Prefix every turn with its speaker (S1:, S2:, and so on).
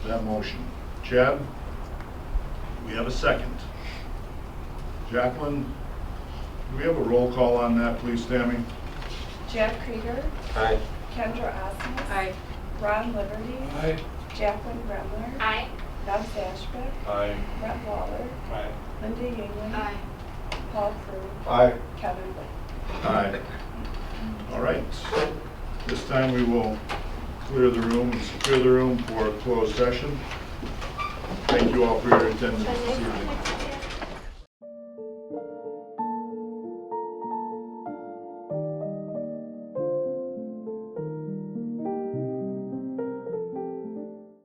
S1: that motion. Chad, we have a second. Jacqueline, do we have a roll call on that, please, Tammy?
S2: Jack Krieger,
S3: Aye.
S2: Kendra Osmus.
S4: Aye.
S2: Ron Liberty. Jacqueline Gremler.
S4: Aye.
S2: Bob Ashbeck.
S3: Aye.
S2: Brett Waller.
S3: Aye.
S2: Linda England. Paul Crew.
S3: Aye.
S2: Kevin Blaine.
S1: Aye. All right. This time we will clear the room and secure the room for a closed session. Thank you all for your attendance this evening.